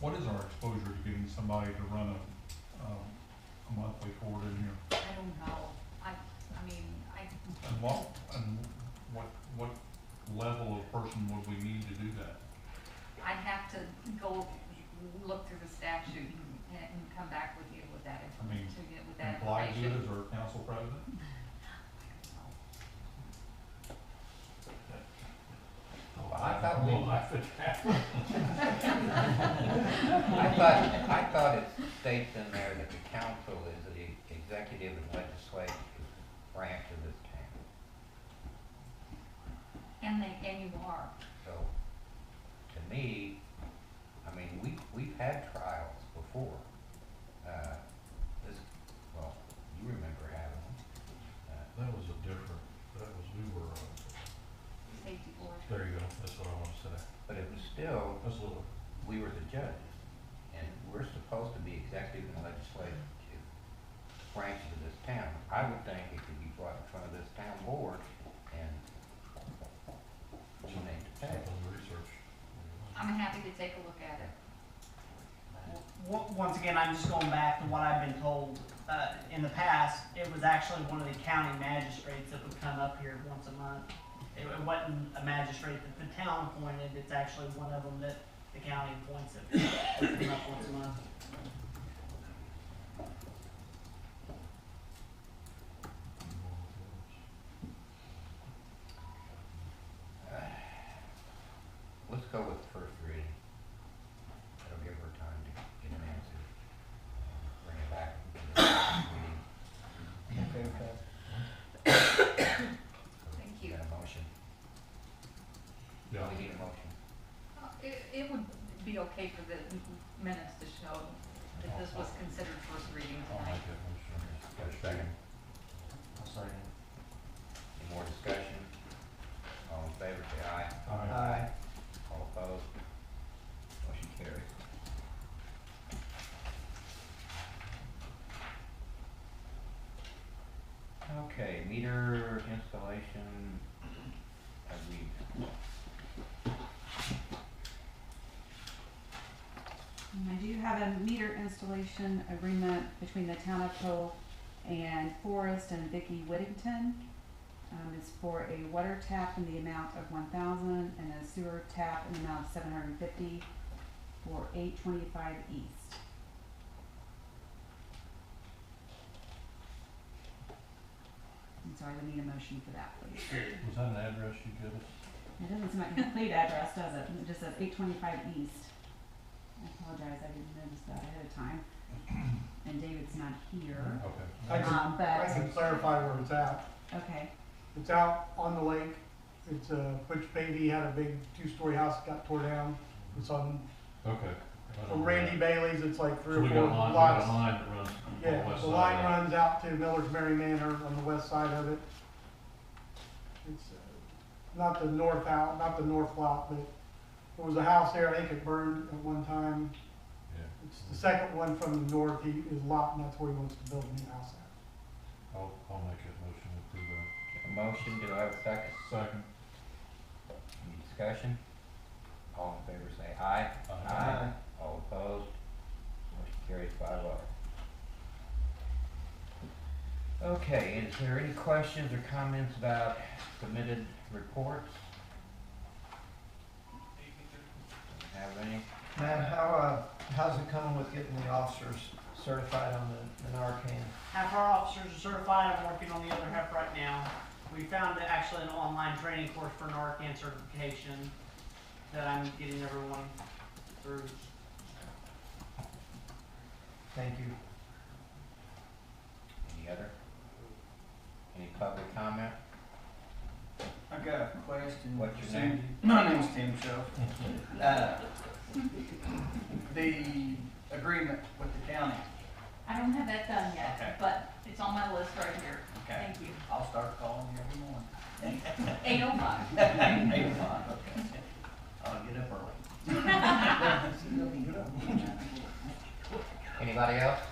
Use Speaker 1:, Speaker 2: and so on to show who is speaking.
Speaker 1: What is our exposure to getting somebody to run a, um, a monthly court in here?
Speaker 2: I don't know, I, I mean, I,
Speaker 1: And what, and what, what level of person would we need to do that?
Speaker 2: I'd have to go look through the statute and, and come back with you with that,
Speaker 1: I mean,
Speaker 2: inf- to get with that
Speaker 1: And Blythe do it
Speaker 2: information.
Speaker 1: as our council president?
Speaker 3: Oh,
Speaker 4: I thought we, I thought, I thought it states in there that the council is the executive and legislative branch of this town,
Speaker 2: And they, and you are,
Speaker 4: so to me, I mean, we, we've had trials before. Uh, This, well, you remember having them. Uh,
Speaker 3: That was a different, that was, we were, uh,
Speaker 2: safety board,
Speaker 3: there you go, that's what I want to say.
Speaker 4: But it was still,
Speaker 3: That's a little,
Speaker 4: we were the judges, and we're supposed to be executive and legislative branches of this town. I would think it could be brought in front of this town board and we need to pay.
Speaker 3: something research.
Speaker 2: I'm happy to take a look at it.
Speaker 5: W- Once again, I'm just going back to what I've been told. Uh, in the past, it was actually one of the county magistrates that would come up here once a month. It it wasn't a magistrate that the town appointed, it's actually one of them that the county appoints that would come up once a month.
Speaker 4: Let's go with the first reading. That'll give her time to get an answer. Bring it back. to the next meeting.
Speaker 6: Okay, with that.
Speaker 2: Thank you.
Speaker 4: Got a motion?
Speaker 3: Yeah.
Speaker 4: We need a motion.
Speaker 2: Uh, It, it would be okay for the minutes to show that this was considered first reading
Speaker 3: I'll
Speaker 2: tonight.
Speaker 3: make that motion.
Speaker 4: Got a second?
Speaker 6: I'll second.
Speaker 4: Any more discussion? All in favor, say aye.
Speaker 6: Aye.
Speaker 4: All opposed? Motion carried. Okay, meter installation, have we,
Speaker 7: Um, I do have a meter installation agreement between the town of Cole and Forrest and Vicky Whittington. Um, it's for a water tap in the amount of one thousand and a sewer tap in the amount of seven hundred and fifty for eight twenty-five east. And so I would need a motion for that, please.
Speaker 3: Was that an address you gave us?
Speaker 7: It doesn't seem like a complete address, does it? It just says eight twenty-five east. I apologize, I didn't notice that ahead of time. And David's not here.
Speaker 3: Okay.
Speaker 6: I can,
Speaker 7: Um,
Speaker 6: I
Speaker 7: but,
Speaker 6: can clarify where it's at.
Speaker 7: okay,
Speaker 6: It's out on the lake. It's, uh, Butch Beatty had a big two-story house that got tore down. It's on,
Speaker 3: Okay.
Speaker 6: from Randy Bailey's, it's like
Speaker 3: So
Speaker 6: three
Speaker 3: we
Speaker 6: or
Speaker 3: got a
Speaker 6: four
Speaker 3: line, we got a
Speaker 6: lots.
Speaker 3: line that runs on the
Speaker 6: Yeah,
Speaker 3: west
Speaker 6: the
Speaker 3: side
Speaker 6: line
Speaker 3: of that.
Speaker 6: runs out to Miller's Mary Manor on the west side of it. It's, uh, not the north out, not the north lot, but there was a house there, I think it burned at one time.
Speaker 3: Yeah,
Speaker 6: It's the second one from the north, he, his lot, and that's where he wants to build a new house at.
Speaker 3: I'll, I'll make that motion to approve that.
Speaker 4: a motion, do I have a second?
Speaker 3: Second.
Speaker 4: Any discussion? All in favor, say aye.
Speaker 6: Aye.
Speaker 4: All opposed? Motion carries five oh. Okay, is there any questions or comments about submitted reports? Have any?
Speaker 6: Man, how, uh, how's it coming with getting the officers certified on the, the Narcan?
Speaker 5: Half our officers are certified, I'm working on the other half right now. We found that actually an online training course for Narcan certification that I'm getting everyone through.
Speaker 6: Thank you.
Speaker 4: Any other? Any public comment?
Speaker 8: I got a question.
Speaker 4: What's your
Speaker 8: for
Speaker 4: name?
Speaker 8: Cindy. My name's Tim Shelf. Uh, The agreement with the county,
Speaker 2: I don't have that done
Speaker 8: Okay.
Speaker 2: yet, but it's on my list right here,
Speaker 8: okay,
Speaker 2: thank you.
Speaker 8: I'll start calling you every morning.
Speaker 2: Eight oh five.
Speaker 8: Eight o'clock, okay. I'll get up early.
Speaker 4: Anybody else?